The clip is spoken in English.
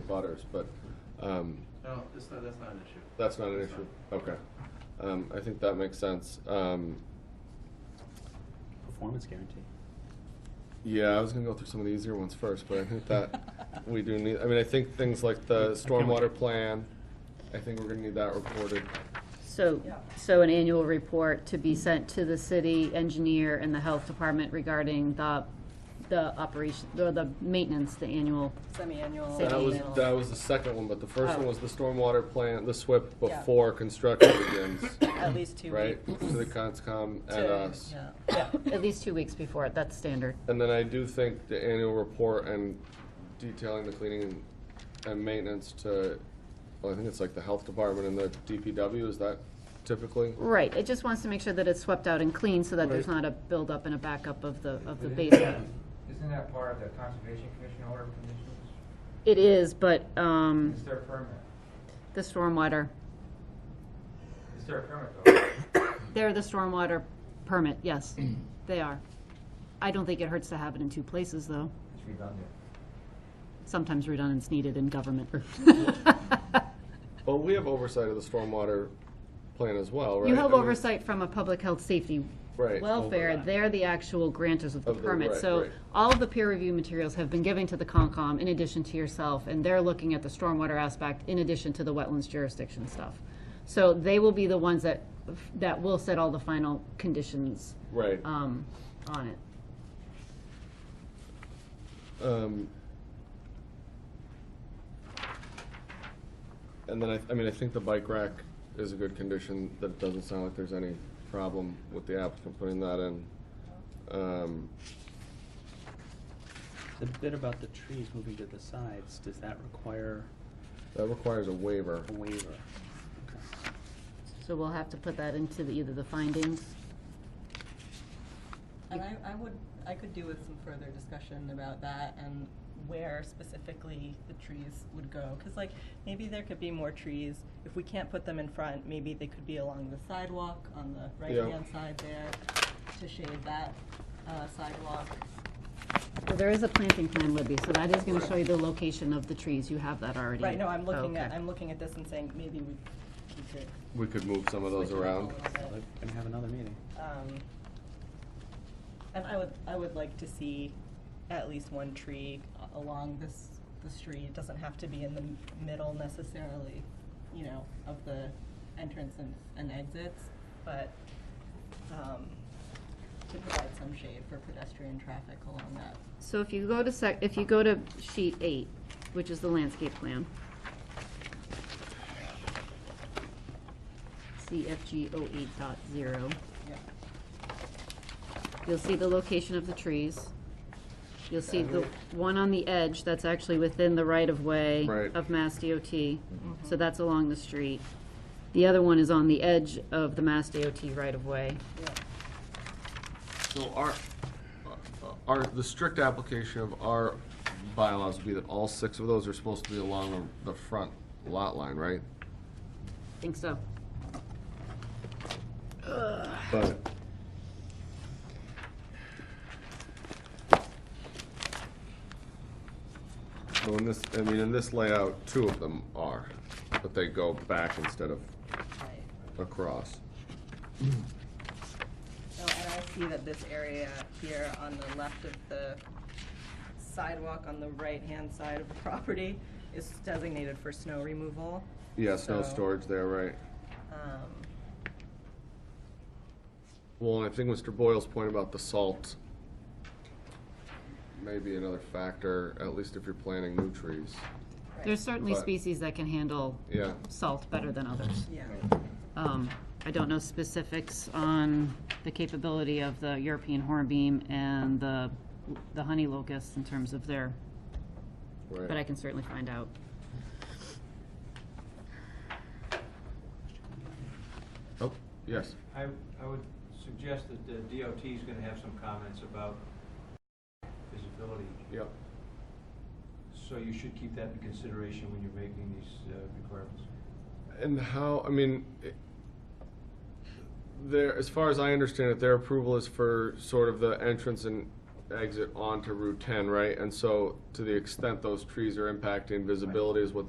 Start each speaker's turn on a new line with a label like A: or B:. A: abutters, but um,
B: No, it's not, that's not an issue.
A: that's not an
B: That's
A: issue. Okay. Um, I think that makes sense. Um,
C: Performance guarantee.
A: yeah, I was gonna go through some of the easier ones first, but I think that we do need, I mean, I think things like the stormwater plan, I think we're gonna need that reported.
D: So, so an annual report to be sent to the city engineer and the health department regarding the, the operation, or the maintenance, the annual.
E: Semi-annual.
A: That was,
E: annual.
A: that was the second one, but the first
D: Oh.
A: one was the stormwater plan, the SWIP
E: Yeah.
A: before construction begins,
E: At least two
A: right?
E: weeks.
A: To the conscom and
E: to-
A: us.
E: yeah. Yeah.
D: At least two weeks before, it. that's standard.
A: And then I do think the annual report and detailing the cleaning and- and maintenance to, well, I think it's like the health department and the DPW, is that typically?
D: Right, it just wants to make sure that it's swept out and clean so that there's
A: Right.
D: not a buildup and a backup of the, of the
F: But
D: basement.
F: Isn't that part of the Conservation Commission order of conditions?
D: It is, but,
G: Hmm.
D: um,
F: Is there a permit?
D: the stormwater,
F: Is there a permit though?
D: they're the stormwater permit, yes, they are. I don't think it hurts to have it in two places, though.
F: It's redundant.
D: Sometimes redundance needed in government.
A: Well, we have oversight of the stormwater plan as well, right?
D: You
A: I
D: have
A: mean,
D: oversight from a public health safety
A: Right.
D: welfare, they're the actual granters of the
A: Of the-
D: permit.
A: right,
D: So
A: right.
D: all of the peer review materials have been given to the Concom in addition to yourself, and they're looking at the stormwater aspect in addition to the wetlands jurisdiction stuff. So they will be the ones that, that will set all the final conditions
A: Right.
D: um, on it.
A: Um, And then I, I mean, I think the bike rack is a good condition, that it doesn't sound like there's any problem with the applicant putting that in. Um,
C: The bit about the trees moving to the sides, does that require
A: That requires a waiver.
C: a waiver?
D: So we'll have to put that into the, either the findings.
E: And I, I would, I could do with some further discussion about that and where specifically the trees would go. Cause like, maybe there could be more trees. If we can't put them in front, maybe they could be along the sidewalk on the
A: Yeah.
E: right-hand side there to shade that, uh, sidewalk.
D: Well, there is a planting plan, Libby, so that is gonna show you the location of the trees. You have that already.
E: Right, no, I'm looking at,
D: Okay.
E: I'm looking at this and saying, maybe we, we could.
A: We could move some of those
E: switch it up a
A: around.
E: little bit.
C: Gonna have another meeting.
E: Um, and I would, I would like to see at least one tree a- along this, the street. It doesn't have to be in the m- middle necessarily, you know, of the entrance and, and exits, but, um, to provide some shade for pedestrian traffic along that.
D: So if you go to sec, if you go to sheet eight, which is the landscape plan. CFG 08.0, dot zero,
E: Yeah.
D: you'll see the location of the trees. You'll see the one on the edge, that's actually within the right-of-way
A: Right.
D: of Mass DOT, so that's along the street. The other one is on the edge of the Mass DOT right-of-way.
A: So our, uh, our, the strict application of our bylaws would be that all six of those are supposed to be along the the front lot line, right?
D: Think so.
A: But. So in this, I mean, in this layout, two of them are, but they go back instead of
E: Right.
A: across.
E: Oh, and I see that this area here on the left of the sidewalk on the right-hand side of the property is designated for snow removal.
A: Yeah, snow
E: So,
A: storage there, right?
E: Um,
A: Well, and I think Mr. Boyle's point about the salt may be another factor, at least if you're planting new trees.
E: right,
D: There's certainly
A: But-
D: species that can handle
A: Yeah.
D: salt better than others.
E: Yeah,
D: Um, I don't know specifics on the capability of the European hornbeam and the, the honey locusts in terms of their,
A: Right.
D: but I can certainly find out.
A: Oh, yes.
G: I, I would suggest that the DOT is gonna have some comments about visibility,
A: Yep.
G: so you should keep that in consideration when you're making these uh, requirements.
A: And how, I mean, it- there, as far as I understand it, their approval is for sort of the entrance and exit onto Route 10, right? And so to the extent those trees are impacting visibility is what